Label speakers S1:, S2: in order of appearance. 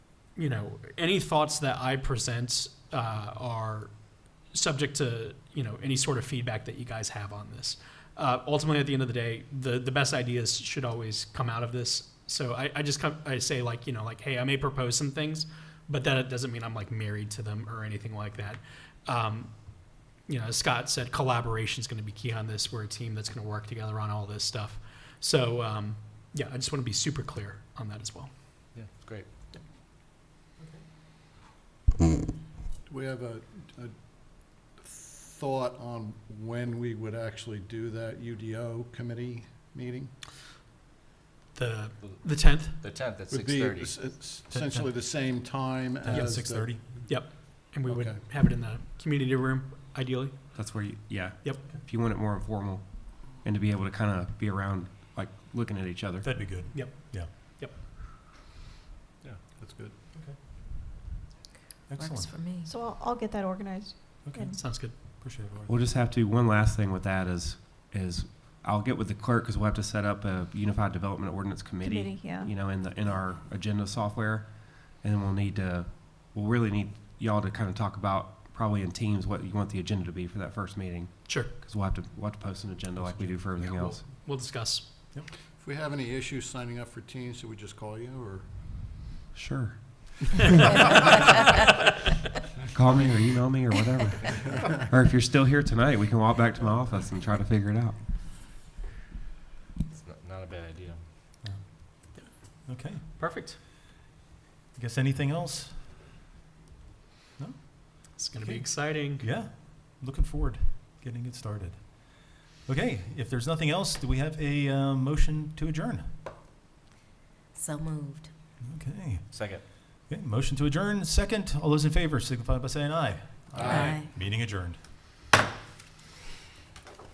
S1: you know, any thoughts that I present uh, are subject to you know any sort of feedback that you guys have on this. Uh, ultimately, at the end of the day, the the best ideas should always come out of this. So I, I just come, I say like you know like hey I may propose some things, but that doesn't mean I'm like married to them or anything like that. Um, you know, as Scott said, collaboration is going to be key on this. We're a team that's going to work together on all this stuff. So um, yeah, I just want to be super clear on that as well.
S2: Yeah, great.
S3: Do we have a, a thought on when we would actually do that UDO committee meeting?
S1: The the tenth.
S2: The tenth at
S3: Would
S2: six
S3: be
S2: thirty.
S3: es- es- essentially the same time as.
S1: Yeah,
S3: the-
S4: six thirty.
S1: And we would
S3: Okay.
S1: have it in the community room, ideally.
S4: That's where you, yeah.
S1: Yep.
S4: If you want it more informal, and to be able to kind of be around, like looking at each other.
S5: That'd be good.
S1: Yep.
S5: Yeah.
S1: Yep.
S3: Yeah, that's good.
S5: Excellent.
S6: for me.
S7: So I'll, I'll get that organized.
S5: Okay,
S7: and-
S1: Sounds good.
S5: appreciate it. Laura.
S4: We'll just have to. One last thing with that is, is I'll get with the clerk because we'll have to set up a unified development ordinance committee.
S7: Committee, yeah.
S4: You know, in the in our agenda software, and we'll need to, we'll really need y'all to kind of talk about probably in teams what you want the agenda to be for that first meeting
S1: Sure.
S4: because we'll have to we'll have to post an agenda like we do for everything
S1: Yeah, we'll-
S4: else.
S1: We'll discuss.
S3: If we have any issues signing up for teams, should we just call you or?
S4: Sure. Call me or email me or whatever. or if you're still here tonight, we can walk back to my office and try to figure it out.
S2: It's not, not a bad idea.
S5: Okay,
S1: Perfect.
S5: I guess anything else?
S1: It's going to be
S5: Okay.
S1: exciting.
S5: Yeah, looking forward, getting it started. Okay, if there's nothing else, do we have a uh, motion to adjourn?
S6: So moved.
S5: Okay,
S2: Second.
S5: okay, motion to adjourn, second, all those in favor signify by saying aye.
S3: Aye.
S5: Meeting adjourned.